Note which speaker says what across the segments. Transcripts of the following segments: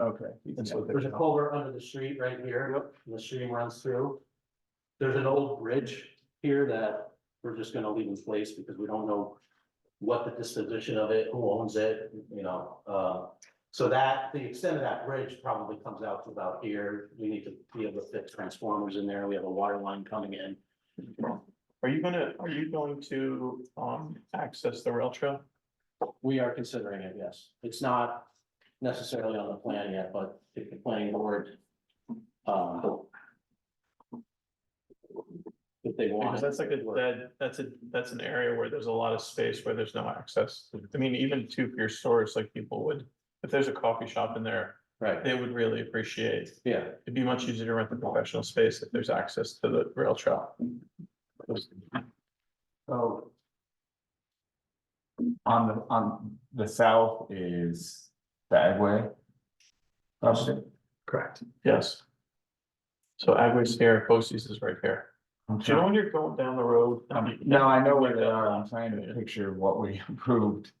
Speaker 1: Okay.
Speaker 2: That's what
Speaker 3: There's a culvert under the street right here, and the stream runs through. There's an old bridge here that we're just gonna leave in place because we don't know. What the disposition of it, who owns it, you know, uh, so that, the extent of that bridge probably comes out to about here. We need to be able to fit transformers in there, we have a water line coming in.
Speaker 1: Are you gonna, are you going to, um, access the rail trail?
Speaker 3: We are considering it, yes. It's not necessarily on the plan yet, but if the planning board. um, If they want.
Speaker 1: Because that's like a,
Speaker 3: it,
Speaker 1: that, that's a, that's an area where there's a lot of space where there's no access. I mean, even to your stores, like people would, if there's a coffee shop in there,
Speaker 3: Right,
Speaker 1: they would really appreciate.
Speaker 3: yeah.
Speaker 1: It'd be much easier to rent the professional space if there's access to the rail trail.
Speaker 2: So. On the, on the south is Bagway. Property,
Speaker 1: Correct. Yes. So Agway's here, Bosse's is right here.
Speaker 2: I'm
Speaker 1: Do you know
Speaker 2: trying-
Speaker 1: when you're going down the road?
Speaker 2: um, No, I know where they are, I'm trying to picture what we approved,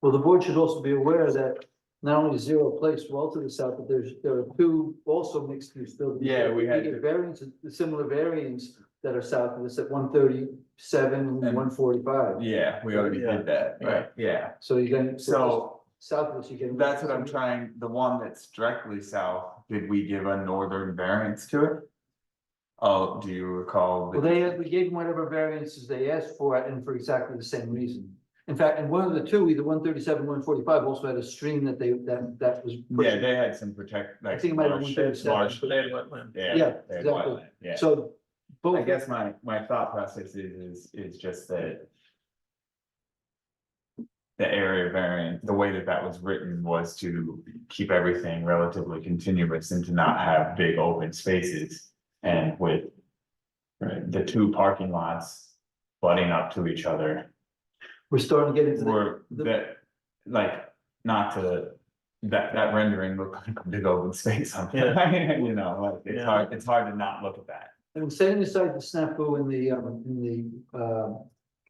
Speaker 4: Well, the board should also be aware that not only zero place well to the south, but there's, there are two also mixed use buildings.
Speaker 2: Yeah, we had-
Speaker 4: We get variants, similar variants that are south of this at one thirty seven
Speaker 2: And-
Speaker 4: and one forty five.
Speaker 2: yeah, we already did that, right, yeah,
Speaker 4: So you can.
Speaker 2: so.
Speaker 4: South of this, you can.
Speaker 2: That's what I'm trying, the one that's directly south, did we give a northern variance to it? Oh, do you recall? the-
Speaker 4: Well, they, we gave them whatever variances they asked for and for exactly the same reason. In fact, and one of the two, either one thirty seven, one forty five also had a stream that they, that, that was.
Speaker 2: Yeah, they had some protect, like.
Speaker 4: I think it might have
Speaker 2: marsh-
Speaker 4: been 37.
Speaker 2: marsh-
Speaker 1: They had wetland.
Speaker 2: Yeah.
Speaker 4: Yeah,
Speaker 2: they had
Speaker 4: exactly.
Speaker 2: wetland, Yeah.
Speaker 4: So. both.
Speaker 2: I guess my, my thought process is, is, is just that. The area variant, the way that that was written was to keep everything relatively continuous and to not have big open spaces. And with. The two parking lots butting up to each other
Speaker 4: We're starting to get into the.
Speaker 2: were that, like, not to. That, that rendering looked like a big open space on, you know, like, it's
Speaker 1: Yeah.
Speaker 2: hard, it's hard to not look at that.
Speaker 4: And setting aside the snafu in the, um, in the, uh,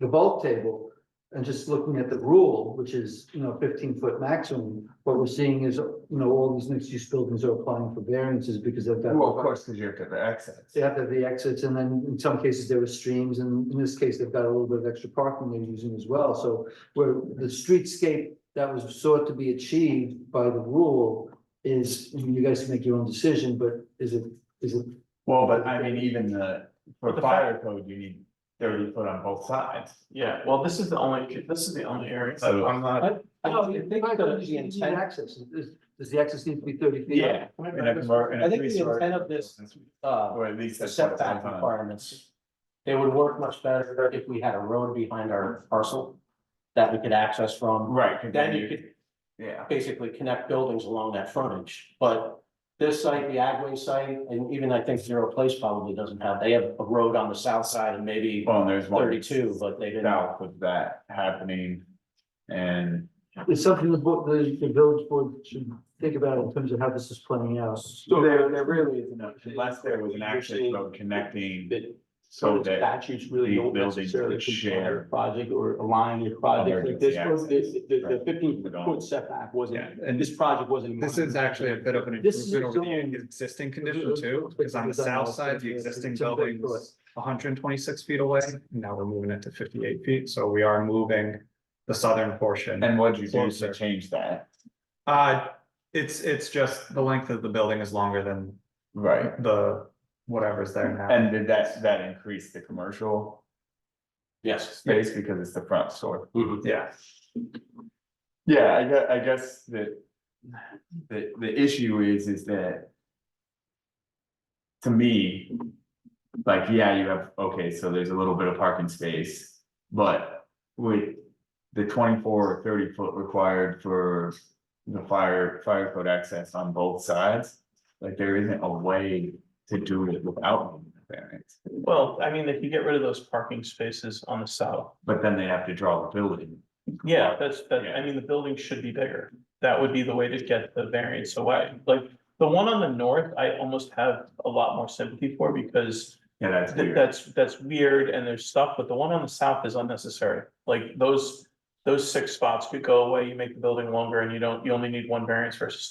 Speaker 4: the bulk table. And just looking at the rule, which is, you know, fifteen foot maximum, what we're seeing is, you know, all these mixed use buildings are applying for variances because they've got.
Speaker 2: Well, of course, because you have to have the access.
Speaker 4: They have to have the exits and then in some cases there were streams and in this case, they've got a little bit of extra parking they're using as well. So where the streetscape that was sought to be achieved by the rule is, you guys can make your own decision, but is it, is it
Speaker 2: Well, but I mean, even the,
Speaker 1: But
Speaker 2: for
Speaker 1: the
Speaker 2: fire code, you need thirty foot on both sides.
Speaker 1: Yeah, well, this is the only, this is the only area.
Speaker 2: So I'm not,
Speaker 3: I don't think
Speaker 4: Oh, Right,
Speaker 3: the,
Speaker 4: but
Speaker 3: the
Speaker 4: you need
Speaker 3: intent,
Speaker 4: Access, Does- does the access need to be thirty feet?
Speaker 2: yeah. in a commer- in a
Speaker 3: I think the
Speaker 2: three-story-
Speaker 3: intent of this- uh,
Speaker 2: Or at least that's. what it's
Speaker 3: setback
Speaker 2: on.
Speaker 3: requirements. It would work much better if we had a road behind our parcel that we could access from.
Speaker 2: Right. 'cause
Speaker 3: Then you could
Speaker 2: Yeah,
Speaker 3: basically connect buildings along that frontage, but. This site, the Agway site, and even I think Zero Place probably doesn't have, they have a road on the south side and maybe
Speaker 2: well, and there's one.
Speaker 3: thirty-two, but they didn't.
Speaker 2: South of that happening and,
Speaker 4: It's something the board, the, the village board should think about in terms of how this is playing out.
Speaker 2: so there, there really isn't, a- unless there was an access road connecting. So
Speaker 5: So the
Speaker 2: that
Speaker 5: statutes really
Speaker 2: the
Speaker 5: don't
Speaker 2: buildings
Speaker 5: necessarily
Speaker 2: would share
Speaker 5: compare project or align your project like
Speaker 2: emergency
Speaker 5: this, was-
Speaker 2: access.
Speaker 5: the, the- the
Speaker 2: Right.
Speaker 5: fifteen
Speaker 2: Would all-
Speaker 5: foot setback wasn't,
Speaker 6: Yeah, and
Speaker 5: this project wasn't.
Speaker 6: This is actually a bit of an
Speaker 4: This is
Speaker 6: improvement over
Speaker 4: its own-
Speaker 6: the existing condition too, because on the south side, the existing building was hundred and twenty-six feet away. and Now we're moving it to fifty-eight feet, so we are moving the southern portion.
Speaker 2: and what'd you do to
Speaker 6: Closer.
Speaker 2: change that?
Speaker 6: Uh, it's, it's just the length of the building is longer than
Speaker 2: Right,
Speaker 6: the whatever's there now.
Speaker 2: and did that, that increase the commercial
Speaker 3: Yes.
Speaker 2: space because it's the front store?
Speaker 6: Yeah,
Speaker 2: Yeah, I guess, I guess that, the, the issue is, is that. To me, like, yeah, you have, okay, so there's a little bit of parking space, but with. The twenty-four or thirty foot required for the fire, fire code access on both sides, like, there isn't a way to do it without. variance.
Speaker 1: Well, I mean, they could get rid of those parking spaces on the south.
Speaker 2: But then they have to draw the building.
Speaker 1: Yeah, that's, that,
Speaker 2: Yeah.
Speaker 1: I mean, the building should be bigger. That would be the way to get the variance away. Like, the one on the north, I almost have a lot more sympathy for because
Speaker 2: Yeah, that's
Speaker 1: th-
Speaker 2: weird.
Speaker 1: that's, that's weird and there's stuff, but the one on the south is unnecessary. Like, those, those six spots could go away. You make the building longer and you don't, you only need one variance versus